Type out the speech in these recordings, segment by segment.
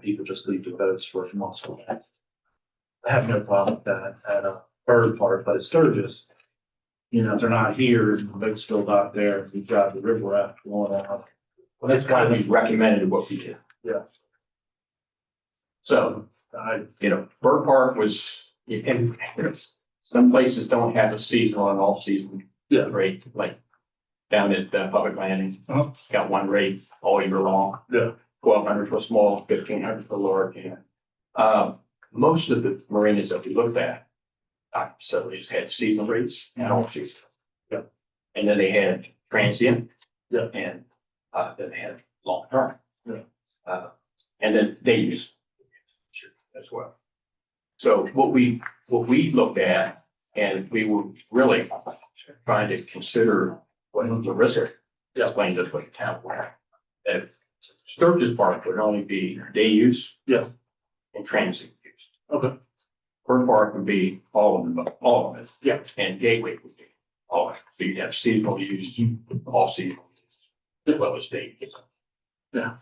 people just leave the boats for muscle. I have no problem with that at a bird park, but at Sturgis, you know, if they're not here, and the boat's still out there, and we've got the river raft going on. Well, that's kind of recommended what we do. Yeah. So, I, you know, Bird Park was, and there's- some places don't have a seasonal and all season yeah, rate, like down at uh, Public Landing, Uh-huh. got one rate all year long. Yeah. Twelve hundred for small, fifteen hundred for large, you know. Uh, most of the marinas that we looked at, uh, facilities had seasonal rates and all season. Yeah. And then they had transient. Yeah. And, uh, then they had long term. Yeah. Uh, and then day use. As well. So what we, what we looked at, and we were really trying to consider what the risk Yeah. explained this way to town where. If Sturgis Park would only be day use. Yeah. And transit use. Okay. Bird Park would be all of them, all of it. Yeah. And Gateway would be all, of it. so you'd have seasonal use, all seasonal. use, As well as day use. Yeah.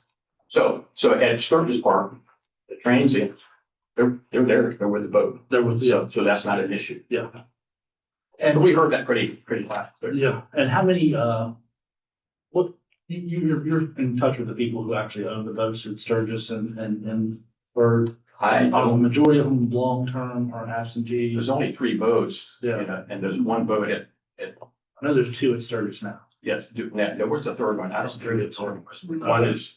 So, so at Sturgis Park, the transit, they're, they're there, they're with the boat, there was, yeah, so, so that's not an issue. Yeah. And we heard that pretty, pretty loud. Yeah, and how many, uh, what, you, you, you're- you're in touch with the people who actually own the boats at Sturgis and, and, and Bird? Are I the don't, majority of them long-term or absentees? there's only three boats. Yeah. you know, And there's one boat at, at, I know there's two at Sturgis now. yes, Duke Neck. there was the third one, I don't think the third one was. One is,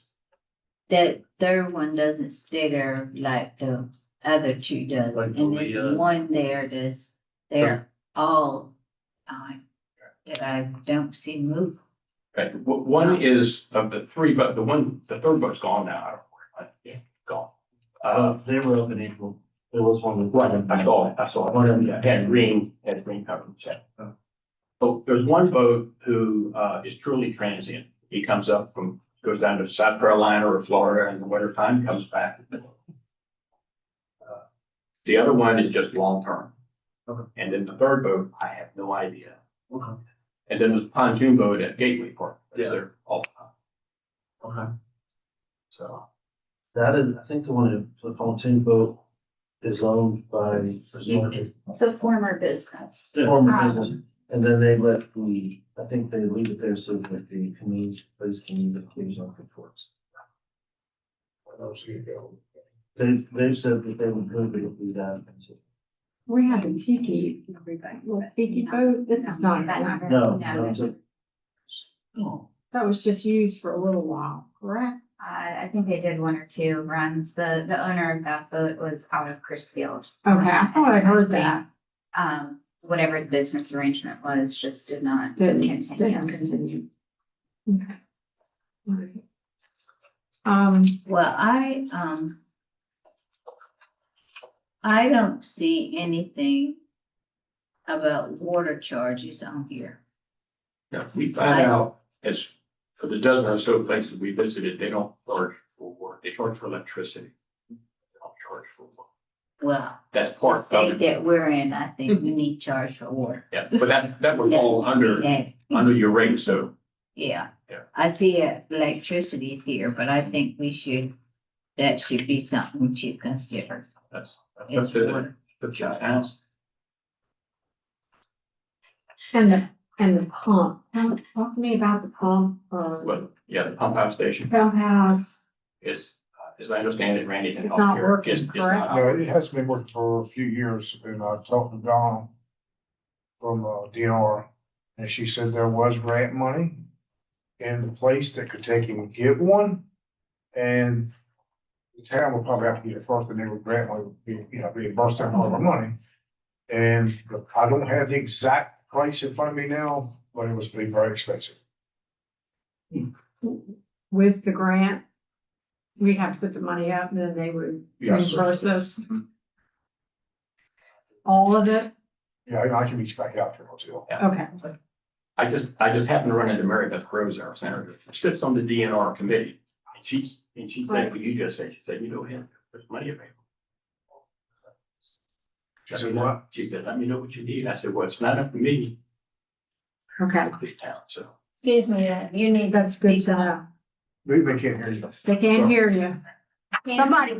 That third one doesn't stay there like the other two does, Like the, and there's uh, one there that's there all time. That I don't see move. okay, w- one is of the three, but the one, the third boat's gone now, I don't know where, it went. gone. Uh, they were up in April. There was one. right, I saw, it, I saw, it. one of them had green, had green cover, so. So there's one boat who, uh, is truly transient, he comes up from, goes down to South Carolina or Florida in the winter time, comes back. Uh, The other one is just long-term. Okay. And then the third boat, I have no idea. Okay. And then the pontoon boat at Gateway Park, Yeah. that's there all the time, Okay. so. That is, I think the one, in- the pontoon boat is owned by. It's a former business. Former business, and then they let the, I think they leave it there so that the community, place can use the occasional reports. They, they've said that they would move it if we done. We have a tiki, everybody, well, tiki boat, this is not that, No, No, no, it's a- Oh, that was just used for a little while, correct? I, I think they did one or two runs. The, the owner of that boat was out of Chrisfield. Okay, I thought I heard that, Um, whatever the business arrangement was, just did not Didn't- continue. didn't continue. Okay. All right. Um, Well, I, um. I don't see anything about water charges on here. Yeah, we find I- out, as for the dozen or so places we visited, they don't charge for water, they charge for electricity. They don't charge for water. Well, That's the part state of it, that we're in, I think we need charge for water. yeah, but that, that would fall under, Yeah. under your rate, so Yeah. Yeah. I see uh, electricity's here, but I think we should, that should be something to consider. that's. that's is up to the- water. up to the house. and the, and the pump, Talk- talk to me about the pump, uh, Well, yeah, the pump out station pump house. is, uh, as I understand it, Randy. can It's help not here, working, is- is not correct? No, operating. it has been working for a few years, and I talked to Dawn from uh, DNR, and she said there was grant money in the place that could take him and get one, and the town would probably have to get it first, and they would grant one, you know, reimburse them all the money. And I don't have the exact price in front of me now, but it was very, very expensive. with the grant, we have to put the money up, and then they would Yes. reimburse us. Mhm. All of it? Yeah, and I can reach back out to her too. Okay, I just, I just happened to run into Mary Beth Rose, our senator, She sits on the DNR committee. And she's, and she said, Right. what you just said, she said, you know, him, there's money available. She said, what? She said, let me know what you need. I said, well, it's not up to me, okay. it's up to the town, so. Excuse me, uh, you need That's good to know. They, they can't hear you. They can't hear you. Somebody